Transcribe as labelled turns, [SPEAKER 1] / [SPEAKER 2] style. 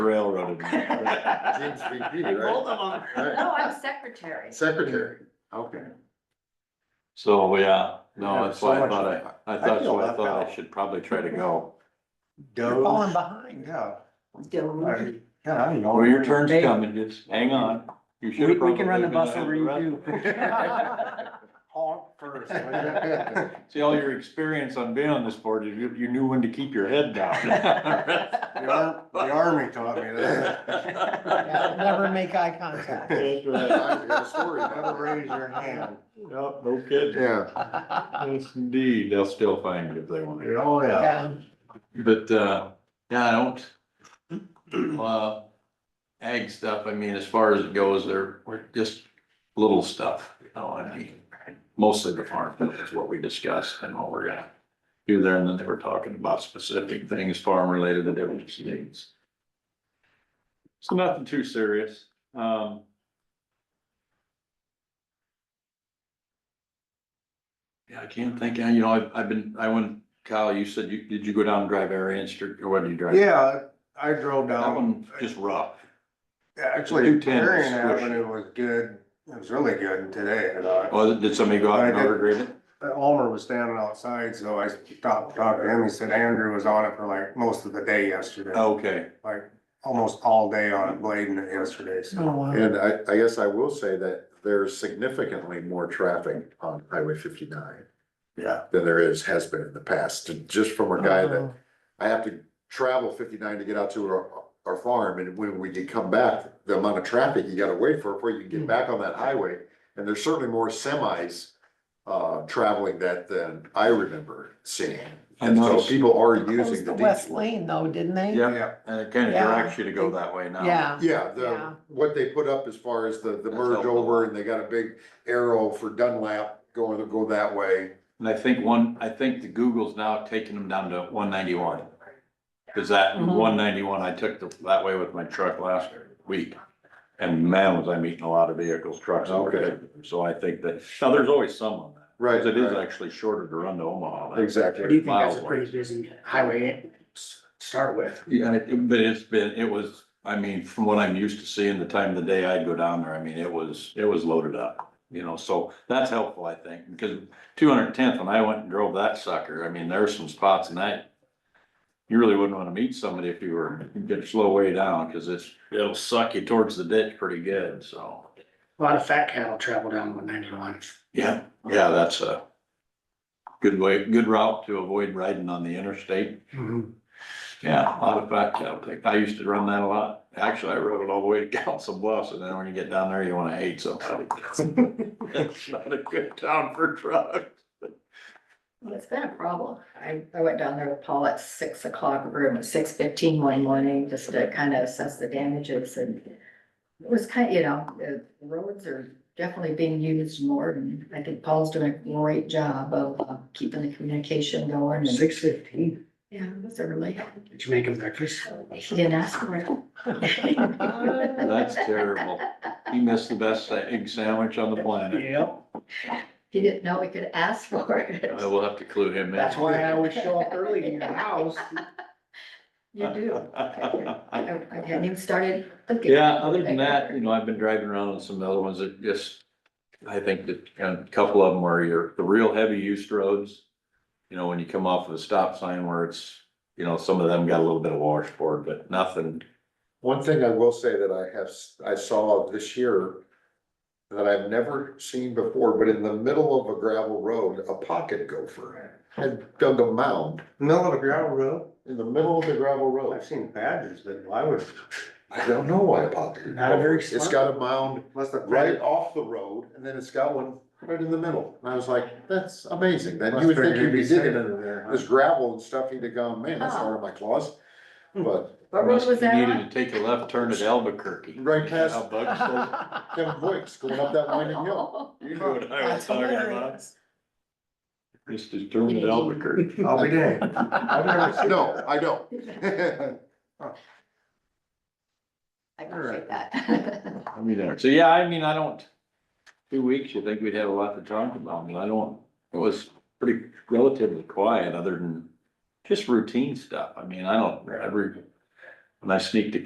[SPEAKER 1] railroaded. me. James VP,
[SPEAKER 2] I
[SPEAKER 1] right?
[SPEAKER 2] told them on-
[SPEAKER 1] Right.
[SPEAKER 3] No, I'm secretary.
[SPEAKER 1] Secretary.
[SPEAKER 4] Okay. So, yeah, no, that's why I thought I, I
[SPEAKER 5] I
[SPEAKER 4] thought, that's
[SPEAKER 5] feel
[SPEAKER 4] why I
[SPEAKER 5] left
[SPEAKER 4] thought I
[SPEAKER 5] out.
[SPEAKER 4] should probably try to go.
[SPEAKER 5] You're falling behind, yeah. I- Yeah, I don't know.
[SPEAKER 4] Well, your turn's
[SPEAKER 5] Hey,
[SPEAKER 4] coming, just hang on. You should
[SPEAKER 5] We,
[SPEAKER 4] have
[SPEAKER 5] we can
[SPEAKER 4] probably
[SPEAKER 5] run the
[SPEAKER 4] been
[SPEAKER 5] bus
[SPEAKER 4] ahead of
[SPEAKER 5] over
[SPEAKER 4] the
[SPEAKER 5] you
[SPEAKER 4] rest.
[SPEAKER 5] too. Honk first. will
[SPEAKER 4] See, all your experience on being on this board, you, you knew when to keep your head
[SPEAKER 5] ya? The ar- the army taught me that.
[SPEAKER 6] Yeah, Never make eye contact.
[SPEAKER 4] That's
[SPEAKER 1] I
[SPEAKER 4] right.
[SPEAKER 1] got a story.
[SPEAKER 5] Never raise your hand.
[SPEAKER 4] Yep, no kidding.
[SPEAKER 1] Yeah,
[SPEAKER 4] Yes, indeed. They'll still find you if they want to.
[SPEAKER 5] Oh, yeah.
[SPEAKER 6] Yeah,
[SPEAKER 4] But, uh, yeah, I don't, uh, ag stuff, I mean, as far as it goes, they're, we're just little stuff, you know, I mean, mostly the farm, bill is what we discussed and what we're gonna do there, and then they were talking about specific things, farm related to different states. So nothing too serious, um. Yeah, I can't think, you know, I've, I've been, I went, Kyle, you said you, did you go down and drive Arian Street, or what did you drive?
[SPEAKER 5] Yeah, um, I drove
[SPEAKER 4] That
[SPEAKER 5] down,
[SPEAKER 4] one just rough.
[SPEAKER 5] actually,
[SPEAKER 4] Two ten
[SPEAKER 5] Marion
[SPEAKER 4] squish.
[SPEAKER 5] Avenue was good. It was really good today. and I-
[SPEAKER 4] Oh, did somebody go out and
[SPEAKER 5] I did.
[SPEAKER 4] overgrade it?
[SPEAKER 5] Almer was standing outside, so I stopped, talked to him. He said Andrew was on it for like most of the day yesterday.
[SPEAKER 4] Okay,
[SPEAKER 5] like almost all day on it blading it yesterday, so.
[SPEAKER 6] oh, wow.
[SPEAKER 1] and I, I guess I will say that there's significantly more traffic on Highway fifty-nine
[SPEAKER 5] Yeah.
[SPEAKER 1] than there is, has been in the past, and just from a guy
[SPEAKER 6] Uh-huh.
[SPEAKER 1] that, I have to travel fifty-nine to get out to our, our farm, and when we get come back, the amount of traffic you gotta wait for, before you
[SPEAKER 6] Hmm.
[SPEAKER 1] can get back on that highway, and there's certainly more semis uh, traveling that than I remember seeing.
[SPEAKER 4] I
[SPEAKER 1] And so
[SPEAKER 4] noticed.
[SPEAKER 1] people are
[SPEAKER 6] Closed
[SPEAKER 1] using
[SPEAKER 6] the
[SPEAKER 1] the
[SPEAKER 6] west
[SPEAKER 1] detour.
[SPEAKER 6] lane though, didn't they?
[SPEAKER 4] yeah,
[SPEAKER 5] Yeah,
[SPEAKER 4] and it kind of
[SPEAKER 6] Yeah.
[SPEAKER 4] directs you to go that way now.
[SPEAKER 6] Yeah,
[SPEAKER 1] Yeah,
[SPEAKER 6] Yeah.
[SPEAKER 1] the, what they put up as far as the, the
[SPEAKER 4] That's
[SPEAKER 1] merge
[SPEAKER 4] helpful.
[SPEAKER 1] over, and they got a big arrow for Dunlap going, go that way.
[SPEAKER 4] And I think one, I think the Google's now taking them down to one ninety-one. Cause that
[SPEAKER 6] Mhm.
[SPEAKER 4] one ninety-one, I took the- that way with my truck last week. And man, was I meeting a lot of vehicles, trucks. and
[SPEAKER 1] Okay.
[SPEAKER 4] everything. So I think that, now there's always some on that,
[SPEAKER 1] Right.
[SPEAKER 4] cause it is
[SPEAKER 1] right.
[SPEAKER 4] actually shorter to run to Omaha. than-
[SPEAKER 1] Exactly.
[SPEAKER 7] do you think that's a
[SPEAKER 4] Miles.
[SPEAKER 7] pretty busy highway to start with?
[SPEAKER 4] Yeah, it- but it's been, it was, I mean, from what I'm used to seeing, the time of the day I'd go down there, I mean, it was, it was loaded up. You know, so that's helpful, I think, because two hundred and tenth, when I went and drove that sucker, I mean, there were some spots and that. You really wouldn't wanna meet somebody if you were, you get a slow way down, cause it's, it'll suck you towards the ditch pretty good, so.
[SPEAKER 7] A lot of fat cattle travel down one ninety-one.
[SPEAKER 4] Yeah, yeah, that's a. Good way, good route to avoid riding on the interstate. Yeah, a lot of fat cattle take, I used to run that a lot. Actually, I rode it all the way to Council Bluffs, and then when you get down there, you wanna hate somebody. It's not a good town for trucks.
[SPEAKER 3] It's been a problem. I, I went down there with Paul at six o'clock, or at six fifteen one morning, just to kind of assess the damages and it was kind, you know, the roads are definitely being used more and I think Paul's doing a great job of uh, keeping the communication going. and-
[SPEAKER 7] Six fifteen,
[SPEAKER 3] Yeah, it was early.
[SPEAKER 7] did you make him breakfast?
[SPEAKER 3] He didn't ask for it.
[SPEAKER 4] That's terrible. You missed the best egg sandwich on the planet.
[SPEAKER 7] Yep.
[SPEAKER 3] He didn't know he could ask for it.
[SPEAKER 4] I will have to clue him in.
[SPEAKER 7] That's why I always show up early in your house.
[SPEAKER 3] You do. I I hadn't even started thinking.
[SPEAKER 4] Yeah, other than that, you know, I've been driving around on some other ones that just, I think that a couple of them are your, the real heavy used roads. You know, when you come off of a stop sign where it's, you know, some of them got a little bit of washboard, but nothing.
[SPEAKER 1] One thing I will say that I have, I saw this year that I've never seen before, but in the middle of a gravel road, a pocket gopher had dug a mound
[SPEAKER 5] middle of a gravel road,
[SPEAKER 1] in the middle of the gravel road.
[SPEAKER 5] I've seen badgers, but why would,
[SPEAKER 1] I don't know why a pocket.
[SPEAKER 7] Not a very
[SPEAKER 1] gopher- It's
[SPEAKER 7] smart-
[SPEAKER 1] got a mound
[SPEAKER 5] unless the.
[SPEAKER 1] right off the road and then it's got one right in the middle. And I was like, that's amazing. Then you would think you'd be digging in
[SPEAKER 5] there.
[SPEAKER 1] this gravel and stuff, you'd have gone, man, that's not in my claws. But
[SPEAKER 3] What road was that
[SPEAKER 4] Needed to
[SPEAKER 3] on?
[SPEAKER 4] take a left turn at Albuquerque.
[SPEAKER 1] Right past-
[SPEAKER 4] How bugs go.
[SPEAKER 1] Kevin Boyks going up that winding hill.
[SPEAKER 4] You know what I was
[SPEAKER 6] That's
[SPEAKER 4] talking about.
[SPEAKER 6] hilarious.
[SPEAKER 4] Just to turn at Albuquerque.
[SPEAKER 5] I'll be damned. I've never seen
[SPEAKER 1] No, I don't.
[SPEAKER 3] I appreciate that.
[SPEAKER 4] I mean, uh, there- so yeah, I mean, I don't, two weeks, you think we'd have a lot to talk about, and I don't, it was pretty relatively quiet, other than just routine stuff, I mean, I don't, every, when I sneaked a